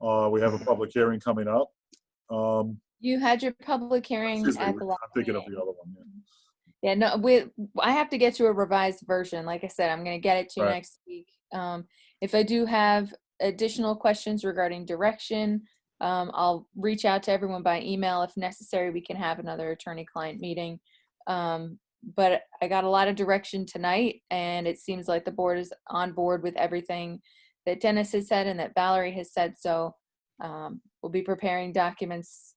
Uh, we have a public hearing coming up. Um, You had your public hearing excuse me, at the I'm last thinking of meeting. the other one, yeah. Yeah, no, we, I have to get you a revised version. Like I said, I'm gonna get it to you Right. next week. Um, if I do have additional questions regarding direction, um, I'll reach out to everyone by email. If necessary, we can have another attorney-client meeting. Um, but I got a lot of direction tonight and it seems like the board is on board with everything that Dennis has said and that Valerie has said, so, um, we'll be preparing documents.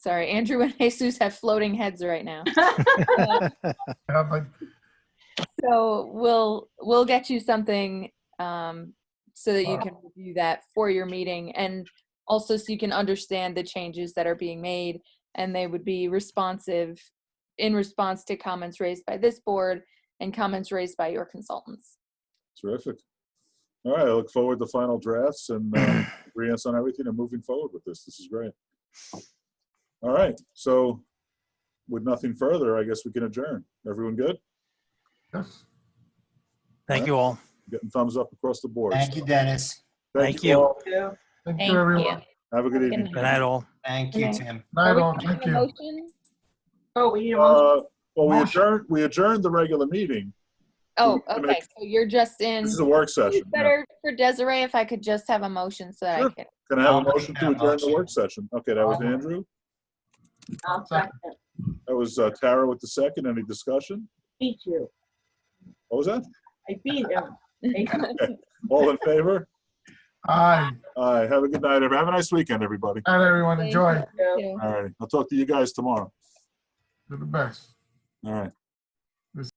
Sorry, Andrew and Jesus have floating heads right now. Yeah, but So we'll, we'll get you something, um, so that you can review that for your meeting and also so you can understand the changes that are being made and they would be responsive in response to comments raised by this board and comments raised by your consultants. Terrific. All right, I look forward to final drafts and uh, agreeance on everything and moving forward with this. This is great. All right, so with nothing further, I guess we can adjourn. Everyone good? yes. Thank you all. Getting thumbs up across the board. Thank you, Dennis. Thank you. all. Thank you, everyone. Have a good Good evening. night. Good night, all. Thank you, Okay. Tim. Night Are we all, making thank a you. motion? Oh, we need a motion. Uh, Well, we Motion. adjourned, we adjourned the regular meeting. Oh, gonna okay, make- so you're just in. This is a work session. It's yeah. better for Desiree if I could just have a motion so that I Sure. could. Can I have a I'll make motion to that adjourn the motion. work session? Okay, that was Andrew. I'll second. That was uh, Tara with the second. Any discussion? Beat you. What was that? I beat him. Thank All in favor? Aye, Aye. Have a good night. everyone. Have a nice weekend, everybody. and everyone Thank enjoy. you. you. All right. I'll talk to you guys tomorrow. Do the best. All right.